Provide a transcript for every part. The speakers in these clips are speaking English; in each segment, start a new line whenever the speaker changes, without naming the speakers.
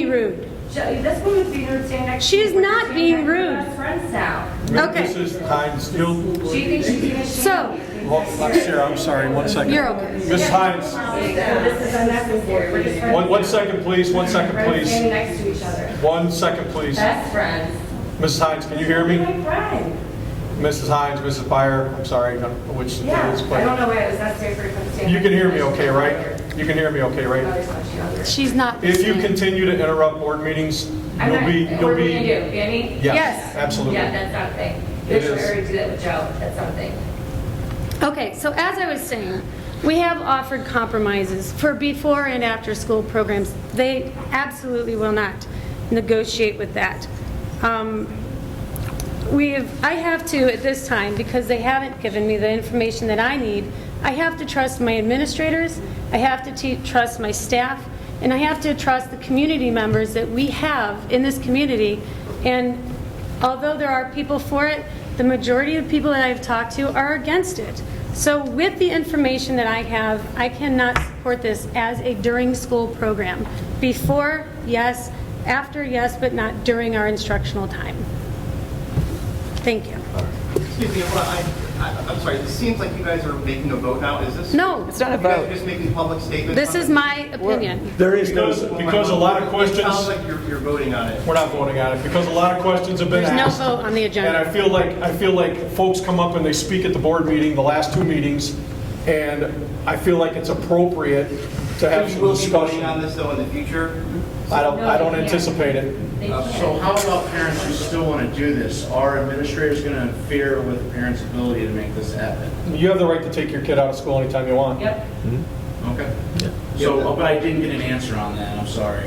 rude.
This woman's being rude standing next to
She
me.
is
We're
not
standing
being
next to
rude.
Best friends now.
Okay.
This is Hines, still,
She thinks she's being ashamed.
So-
well, Sarah, I'm sorry, one second.
You're okay.
Ms. Hines,
This is unnecessary. We're just friends.
one, one second, please, one second,
Friends
please.
standing next to each other.
One second, please.
Best friends.
Mrs. Hines, can you hear me?
My friend.
Mrs. Hines, Mrs. Byer, I'm sorry, I don't know which it
Yeah.
is,
I don't
but
know why it was necessary for him to stand.
you can hear me
next to
okay,
each
right?
other.
You can hear me okay,
Oh,
right?
there's much younger.
She's not.
If you
listening.
continue to interrupt board meetings,
I'm
you'll
not-
be,
What
you'll
are we gonna do,
be.
Danny?
Yes.
Yes, absolutely.
Yeah, that's something.
It
This
is.
already do that with Joe, that's something.
Okay, so as I was saying, we have offered compromises for before and after school programs. They absolutely will not negotiate with that. Um, We have, I have to at this time, because they haven't given me the information that I need, I have to trust my administrators, I have to te- trust my staff, and I have to trust the community members that we have in this community. And although there are people for it, the majority of people that I've talked to are against it. So with the information that I have, I cannot support this as a during-school program. Before, yes, after, yes, but not during our instructional time. Thank you.
Excuse me, hold on, I, I- I'm sorry, it seems like you guys are making a vote now, is this?
No.
It's not a
You guys are
vote.
just making public statements?
This
on
is
it?
my opinion.
There is no. Because a lot of
It sounds
questions,
like you're, you're voting on it.
we're not voting on it, because a lot of questions have been
There's no
asked.
vote on the
And I
agenda.
feel like, I feel like folks come up and they speak at the board meeting, the last two meetings, and I feel like it's appropriate to have
You
some
will be voting
discussion.
on this though in the future?
I don't, I don't anticipate it.
They
Uh,
can't.
So how about parents who still want to do this? Are administrators going to interfere with parents' ability to make this happen?
You have the right to take your kid out of school anytime you want.
Yep.
Okay. So, but I didn't get an answer on that, I'm sorry.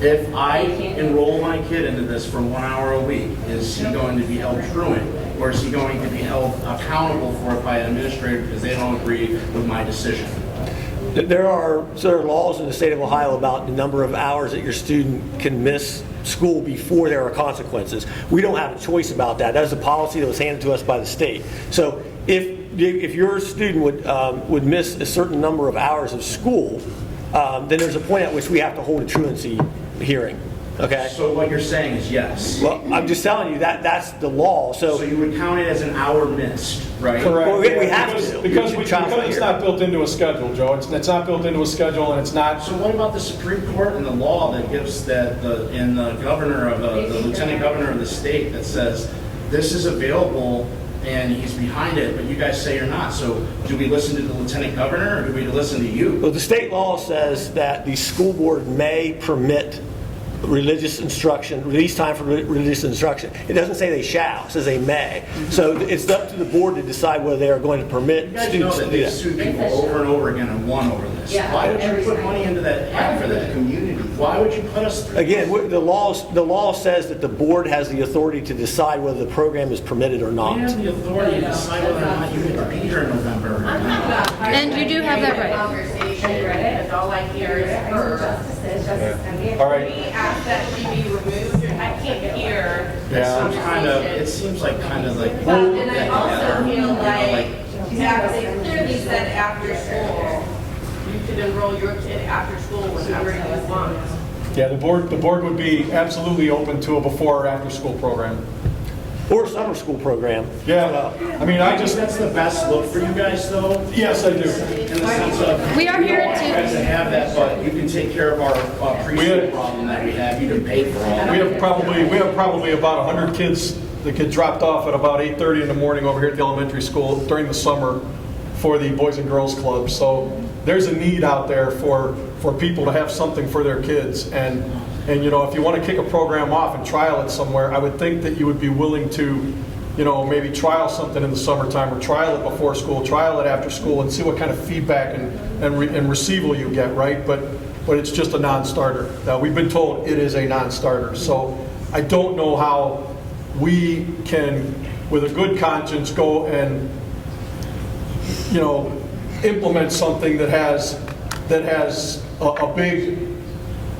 If I enroll my kid into this for one hour a week, is he going to be held truant? Or is he going to be held accountable for it by an administrator because they don't agree with my decision?
There are, so there are laws in the state of Ohio about the number of hours that your student can miss school before there are consequences. We don't have a choice about that. That is a policy that was handed to us by the state. So if, if your student would, um, would miss a certain number of hours of school, um, then there's a point at which we have to hold a truancy hearing, okay?
So what you're saying is yes.
Well, I'm just telling you, that, that's the law,
So you would count it as an hour missed, right?
Well, we- we have
Because-
to.
Because we-
Child's not
because it's
here.
not built into a schedule, Joe. It's, it's not built into a schedule and it's not,
So what about the Supreme Court and the law that gives that, the and the governor of, uh, the the lieutenant governor of the state that says, this is available and he's behind it, but you guys say you're not, so do we listen to the lieutenant governor or do we listen to you?
Well, the state law says that the school board may permit religious instruction, release time for re- religious instruction. It doesn't say they shall, it says they may. So it's up to the board to decide whether they are going to
You
permit
guys know
students to
that
do
they've
that.
sued people over and over again and won over this.
Yeah,
Why would
every
you put
time.
money into that, ad for that community? Why would you put us through?
Again, what- the law, the law says that the board has the authority to decide whether the program is permitted or
We
not.
have the authority to decide whether or not you get to be here in November or
I'm
not.
talking about hard
And you do have that
time,
right.
Conversation,
I read it,
right?
and all I hear is
I know
her.
justice is, justice can be.
all right.
We ask that she be removed, and I can't hear.
It
Yeah.
seems kind of, it seems like kind of like.
But then I
Yeah.
also feel
Like,
like, that they clearly said after school, you could enroll your kid after school whenever you want.
yeah, the board, the board would be absolutely open to a before or after school program.
Or summer school program.
Yeah, I mean, I
I
just,
just, that's the best look for you guys though,
yes, I do.
in the sense of.
We are here
don't want
to-
You guys to have that, but you can take care of our uh, preschool problem that we have, you can pay for all.
We have probably, we have probably about 100 kids that get dropped off at about 8:30 in the morning over here at the elementary school during the summer for the Boys and Girls Club. So there's a need out there for, for people to have something for their kids. And, and you know, if you want to kick a program off and trial it somewhere, I would think that you would be willing to, you know, maybe trial something in the summertime or trial it before school, trial it after school and see what kind of feedback and, and re- and receival you get, right? But but it's just a non-starter. Now, we've been told it is a non-starter, so I don't know how we can, with a good conscience, go and, you know, implement something that has, that has a, a big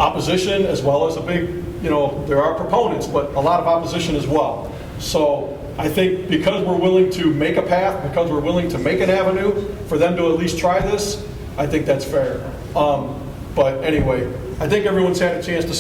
opposition as well as a big, you know, there are proponents, but a lot of opposition as well. So I think because we're willing to make a path, because we're willing to make an avenue for them to at least try this, I think that's fair. Um, But anyway, I think everyone's had a chance to